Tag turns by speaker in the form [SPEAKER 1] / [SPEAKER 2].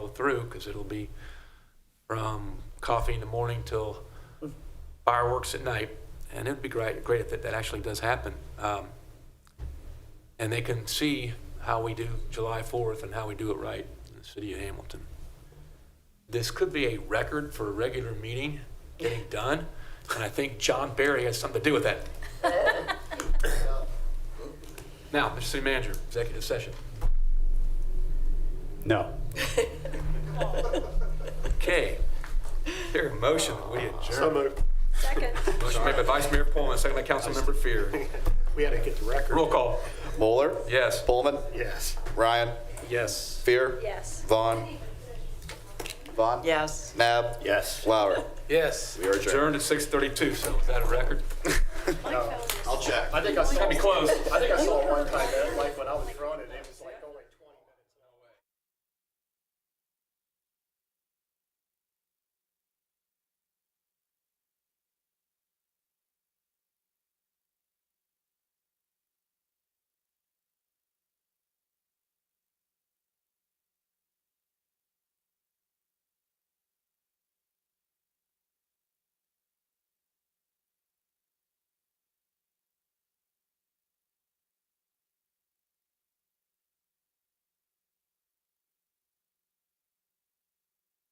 [SPEAKER 1] through, because it'll be from coffee in the morning till fireworks at night. And it'd be great, great if that, that actually does happen. Um, and they can see how we do July 4th and how we do it right in the city of Hamilton. This could be a record for a regular meeting getting done, and I think John Barry has something to do with that. Now, Mr. City Manager, executive session.
[SPEAKER 2] No.
[SPEAKER 1] Okay. Here, a motion, that we adjourn.
[SPEAKER 3] moved.
[SPEAKER 4] Second.
[SPEAKER 1] Motion made by Vice Mayor Pullman, second by Councilmember Fear.
[SPEAKER 3] We had to get the record.
[SPEAKER 1] Roll call.
[SPEAKER 5] Moeller?
[SPEAKER 1] Yes.
[SPEAKER 5] Pullman?
[SPEAKER 3] Yes.
[SPEAKER 5] Ryan?
[SPEAKER 1] Yes.
[SPEAKER 5] Fear?
[SPEAKER 4] Yes.
[SPEAKER 5] Vaughn? Vaughn?
[SPEAKER 6] Yes.
[SPEAKER 5] Nab?
[SPEAKER 3] Yes.
[SPEAKER 5] Flower?
[SPEAKER 1] Yes. We
[SPEAKER 5] are
[SPEAKER 1] Adjourned
[SPEAKER 5] adjourned.
[SPEAKER 1] at 6:32, so is that a record?
[SPEAKER 5] I'll check.
[SPEAKER 3] I think I saw,
[SPEAKER 1] That'd be close.
[SPEAKER 3] I think I saw it one time, man, like when I was drawing it.